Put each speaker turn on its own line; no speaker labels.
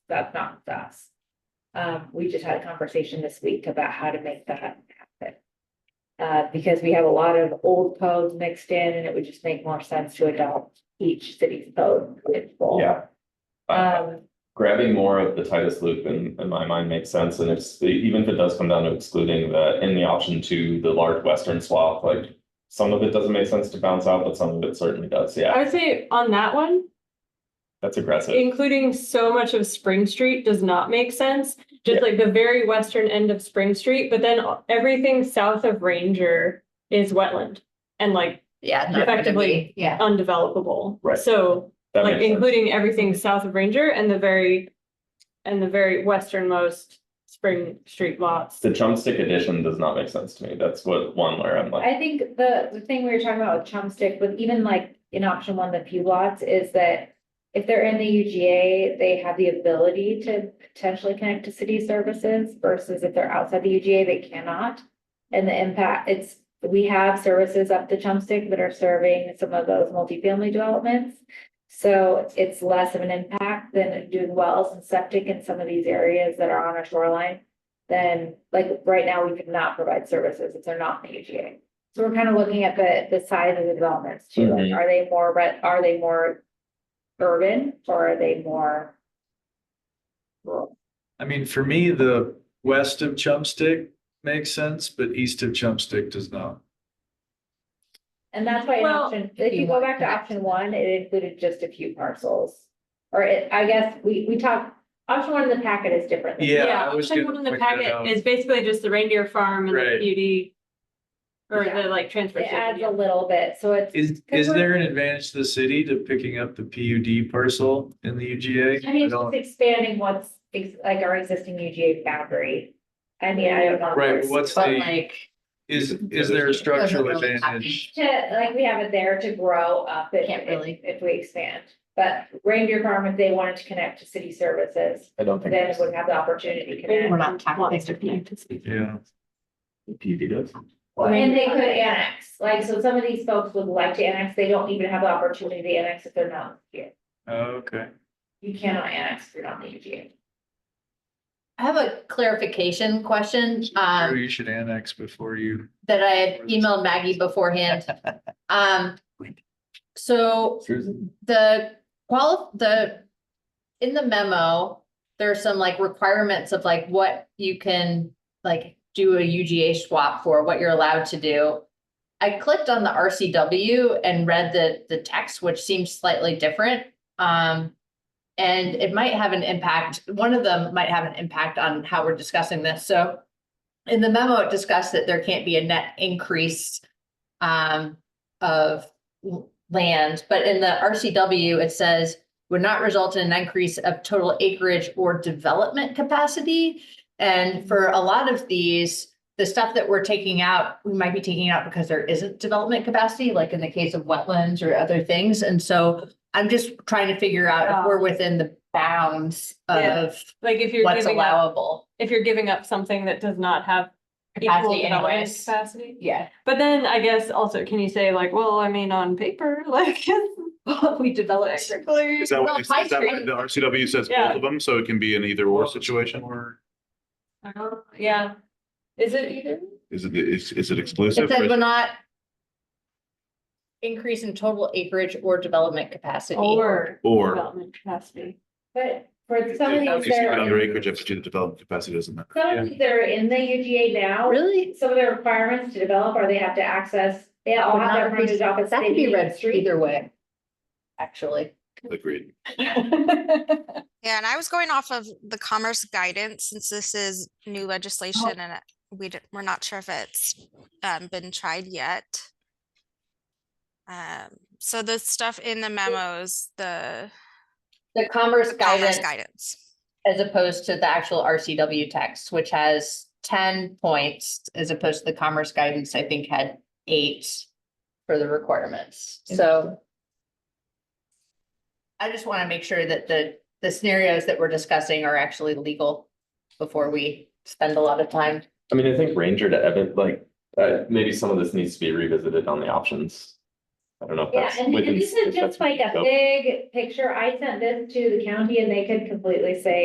that's not us. Um, we just had a conversation this week about how to make that happen. Uh, because we have a lot of old codes mixed in and it would just make more sense to adopt each city's code in full.
Yeah. Uh,
Um,
Grabbing more of the Titus loop in, in my mind makes sense, and it's, even if it does come down to excluding the, in the option to the large western swath, like. Some of it doesn't make sense to bounce out, but some of it certainly does,
Uh,
I
yeah,
would say on that one,
that's aggressive,
including so much of Spring Street does not make sense. Just like the very western end of Spring Street, but then everything south of Ranger is wetland and like
Yeah. not gonna
Effectively.
be- Yeah.
undevelopable.
Right.
So
that
like
makes sense.
including everything south of Ranger and the very, and the very westernmost Spring Street lots.
The chump stick addition does not make sense to me, that's what one where I'm like,
I think the, the thing we were talking about with Chumstick, with even like in option one, the few lots, is that if they're in the UGA, they have the ability to potentially connect to city services versus if they're outside the UGA, they cannot. And the impact, it's, we have services up to Chumstick that are serving some of those multifamily developments. So it's less of an impact than doing wells and septic in some of these areas that are on our shoreline. Then, like, right now, we could not provide services if they're not in the UGA. So we're kind of looking at the, the size of the developments too, like,
Mhm.
are they more, re- are they more urban or are they more? rural?
I mean, for me, the west of Chumstick makes sense, but east of Chumstick does not.
And that's why in
Well,
option, if you
you
go
want
back to
that.
option one, it included just a few parcels. Or it, I guess, we, we talked, option one in the packet is different. than-
Yeah, I was
option
gonna
one in the
point that
packet
out.
is basically just the reindeer farm and the
Right.
beauty. Or
Yeah.
the like transfer.
It adds
station,
a little bit, so it's,
Is,
Good
is
work.
there an advantage to the city to picking up the PUD parcel in the
I
UGA?
mean,
I
it's just
don't-
expanding what's, ex- like our existing UGA boundary. I mean, I don't know.
Right, but what's
But
the,
like.
is, is there a structural
doesn't really
advantage?
To, like, we have it there to grow up if,
Can't
if,
really.
if we expand. But reindeer farm, if they wanted to connect to city services,
I don't think.
then it would have the opportunity to
Maybe
connect.
We're not tackling
wants to
it tonight.
connect to speak.
Yeah,
PUD does.
And they could annex, like, so some of these folks would like to annex, they don't even have the opportunity to annex if they're not here.
oh, okay.
You cannot annex if you're not in the UGA.
I have a clarification question,
Drew,
um,
you should annex before you,
that I had emailed Maggie beforehand. Um, so the qual, the, in the memo, there are some like requirements of like what you can like do a UGA swap for, what you're allowed to do. I clicked on the RCW and read the, the text, which seems slightly different. Um, and it might have an impact, one of them might have an impact on how we're discussing this, so. In the memo, it discussed that there can't be a net increase um, of l- land, but in the RCW, it says would not result in an increase of total acreage or development capacity. And for a lot of these, the stuff that we're taking out, we might be taking out because there isn't development capacity, like in the case of wetlands or other things. And so I'm just trying to figure out if we're within the bounds
Yeah.
of
Like if you're
what's
giving up,
allowable.
if you're giving up something that does not have equal
Capacity
development
anyways.
capacity.
Yeah,
But then I guess also, can you say like, well, I mean, on paper, like.
we developed.
Technically.
Is that
Well,
what, is
Pine
is that
Street-
what the RCW says
Yeah.
both of them, so it can be an either or situation?
Or
I don't- Yeah. Is it either?
Is it, is, is it
It
exclusive? or
said
is
will
it-
not increase in total acreage or development capacity.
Or.
Or-
Development capacity.
But for some of
You
these that
stand
are,
on your acreage if you develop capacity doesn't matter.
some of these that are in the UGA now.
Really?
Some of the requirements to develop are they have to access, they all have their frontage off a
That could
city
be read
street.
either way, actually.
Agreed.
Yeah, and I was going off of the commerce guidance since this is new legislation and it- we did we're not sure if it's um, been tried yet. Um, so the stuff in the memos, the
The commerce
commerce
guidance
guidance.
as opposed to the actual RCW text, which has ten points as opposed to the commerce guidance, I think had eight for the requirements. So I just want to make sure that the, the scenarios that we're discussing are actually legal before we spend a lot of time.
I mean, I think Ranger to Evan, like, uh, maybe some of this needs to be revisited on the options. I don't know if
Yeah,
that's.
and and
within-
this
if
is
that's
just like a
within scope.
big picture. I sent this to the county and they could completely say,